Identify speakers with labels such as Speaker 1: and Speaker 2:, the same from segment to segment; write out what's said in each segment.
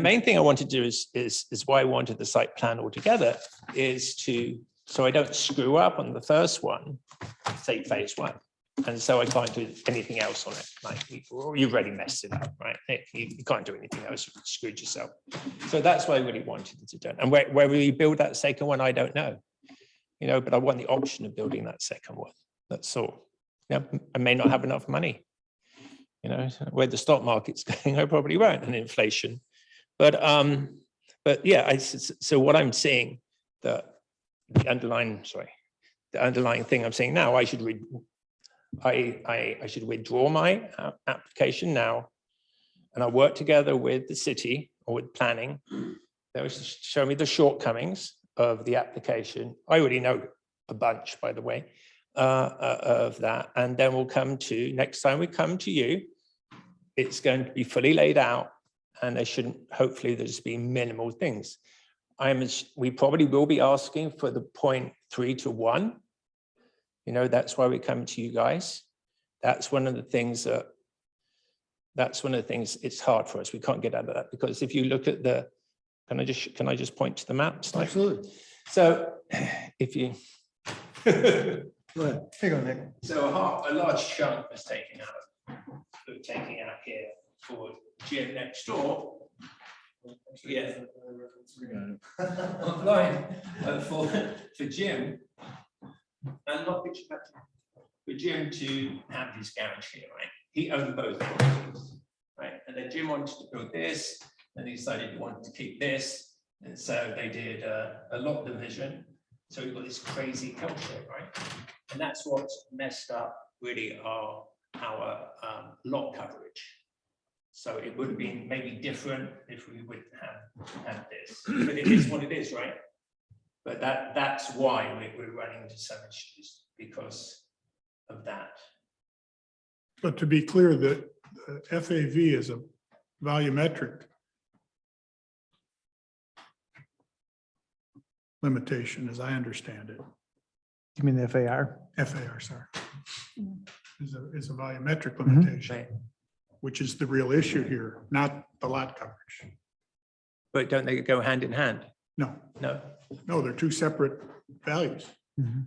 Speaker 1: The main thing I want to do is, is, is why I wanted the site plan altogether is to, so I don't screw up on the first one, say phase one. And so I can't do anything else on it, like, you- you've already messed it up, right? You, you can't do anything else, you screwed yourself. So that's what I really wanted to do. And where, where we build that second one, I don't know. You know, but I want the option of building that second one, that's all. You know, I may not have enough money. You know, where the stock market's going, I probably won't, and inflation. But um, but yeah, I, s- s- so what I'm saying, the the underlying, sorry, the underlying thing I'm saying now, I should read, I, I, I should withdraw my a- application now. And I work together with the city or with planning. They will sh- show me the shortcomings of the application. I already know a bunch, by the way, uh, uh, of that. And then we'll come to, next time we come to you, it's going to be fully laid out and there shouldn't, hopefully there's be minimal things. I'm, ass- we probably will be asking for the point three to one. You know, that's why we come to you guys. That's one of the things that, that's one of the things, it's hard for us. We can't get out of that because if you look at the, can I just, can I just point to the maps?
Speaker 2: Absolutely.
Speaker 1: So if you.
Speaker 2: Go ahead. Take on, Nick.
Speaker 1: So a half, a large chunk was taken out, of taking out here for gym next door. Yeah. Online, uh, for, for Jim. And not which, for Jim to have his garage here, right? He owned both properties, right? And then Jim wanted to build this, and he decided he wanted to keep this. And so they did uh, a lot division, so we've got this crazy culture, right? And that's what's messed up really our, our um, lot coverage. So it would have been maybe different if we would have had this, but it is what it is, right? But that, that's why we- we're running into some issues because of that.
Speaker 3: But to be clear, the uh, FAV is a volumetric limitation, as I understand it.
Speaker 2: You mean the FAR?
Speaker 3: FAR, sorry. Is a, is a volumetric limitation, which is the real issue here, not the lot coverage.
Speaker 1: But don't they go hand in hand?
Speaker 3: No,
Speaker 1: No.
Speaker 3: no, they're two separate values.
Speaker 4: Mm-hmm.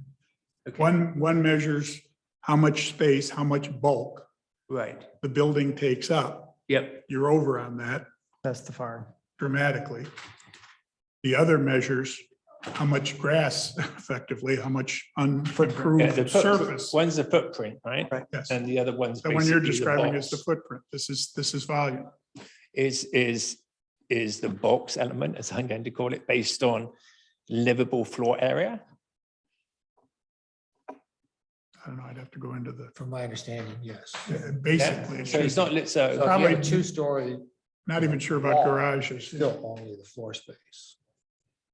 Speaker 1: Okay.
Speaker 3: One, one measures how much space, how much bulk
Speaker 1: Right.
Speaker 3: the building takes up.
Speaker 1: Yep.
Speaker 3: You're over on that.
Speaker 2: That's the FAR.
Speaker 3: dramatically. The other measures how much grass effectively, how much
Speaker 1: Yeah, the
Speaker 3: unimproved
Speaker 1: foot-
Speaker 3: surface.
Speaker 1: One's the footprint, right?
Speaker 3: Yes,
Speaker 1: And the other one's.
Speaker 3: the one
Speaker 1: basically
Speaker 3: you're
Speaker 1: the
Speaker 3: describing is the
Speaker 1: box.
Speaker 3: footprint. This is, this is volume.
Speaker 1: is is is the box element, as I'm going to call it, based on livable floor area.
Speaker 3: I don't know, I'd have to go into the,
Speaker 5: From my understanding, yes.
Speaker 3: uh,
Speaker 1: Yeah?
Speaker 3: basically,
Speaker 1: So it's
Speaker 3: it's
Speaker 1: not lit, so,
Speaker 5: So if you have
Speaker 3: Probably-
Speaker 5: a two-story,
Speaker 3: not even sure about
Speaker 5: it's
Speaker 3: garages.
Speaker 5: still only the floor space.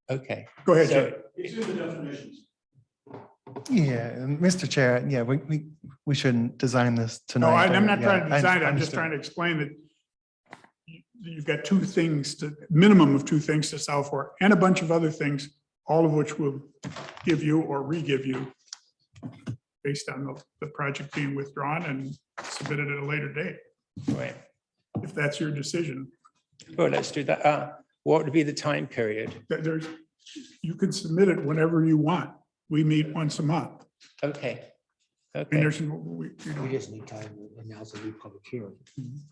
Speaker 1: okay.
Speaker 3: Go ahead, Jay.
Speaker 1: So
Speaker 4: Yeah, and Mr. Chair, yeah, we, we, we shouldn't design this
Speaker 3: No,
Speaker 4: tonight.
Speaker 3: I- I'm
Speaker 4: but
Speaker 3: not
Speaker 4: yeah,
Speaker 3: trying to
Speaker 4: I
Speaker 3: decide. I'm just
Speaker 4: understood.
Speaker 3: trying to explain that you- you've got two things to, minimum of two things to solve for and a bunch of other things, all of which will give you or re-give you based on the, the project being withdrawn and submitted at a later date,
Speaker 1: right,
Speaker 3: if that's your decision.
Speaker 1: well, let's do that. Uh, what would be the time period?
Speaker 3: There- There's, you can submit it whenever you want. We meet once a month.
Speaker 1: Okay.
Speaker 3: I mean,
Speaker 1: Okay,
Speaker 3: there's, we, we
Speaker 5: We
Speaker 3: don't,
Speaker 5: just need time to announce a new public hearing.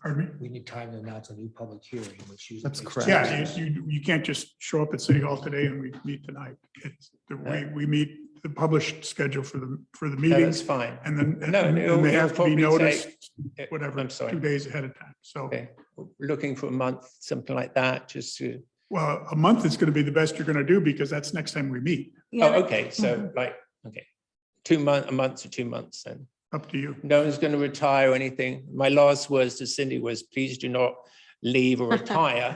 Speaker 3: pardon me?
Speaker 5: We need time to announce a new public hearing, which usually.
Speaker 4: That's
Speaker 5: takes
Speaker 4: correct.
Speaker 5: two
Speaker 3: Yeah,
Speaker 5: weeks.
Speaker 3: you, you- you can't just show up at City Hall today and we meet tonight. It's, the way we meet the published schedule for the, for the
Speaker 1: no, that's
Speaker 3: meetings
Speaker 1: fine.
Speaker 3: and then, and
Speaker 1: No, it'll-
Speaker 3: then they
Speaker 1: it'll
Speaker 3: have to be
Speaker 1: probably
Speaker 3: noticed,
Speaker 1: Eh,
Speaker 3: whatever,
Speaker 1: I'm
Speaker 3: two
Speaker 1: sorry,
Speaker 3: days ahead of time. So,
Speaker 1: Okay. looking for a month, something like that, just to,
Speaker 3: well, a month is going to be the best you're going to do because that's next time we meet.
Speaker 1: oh,
Speaker 6: Yeah,
Speaker 1: okay, so like, okay. Two month, a month to two months then.
Speaker 3: Up to you.
Speaker 1: no one's going to retire or anything. My last words to Cindy was, please do not leave or retire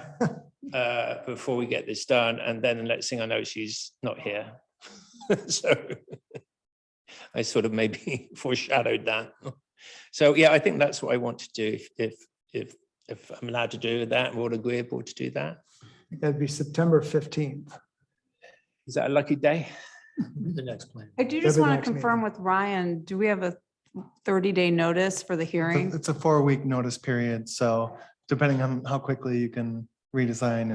Speaker 1: uh, before we get this done. And then the next thing I know, she's not here. so I sort of maybe foreshadowed that. So yeah, I think that's what I want to do. If if if, if I'm allowed to do that, we're all agreeable to do that.
Speaker 2: That'd be September fifteenth.
Speaker 1: Is that a lucky day?
Speaker 5: The next plan.
Speaker 6: I do
Speaker 2: That'd
Speaker 6: just
Speaker 2: be
Speaker 6: want to
Speaker 2: next meeting.
Speaker 6: confirm with Ryan, do we have a thirty-day notice for the
Speaker 4: It's a-
Speaker 6: hearing?
Speaker 4: It's a four-week notice period, so depending on how quickly you can redesign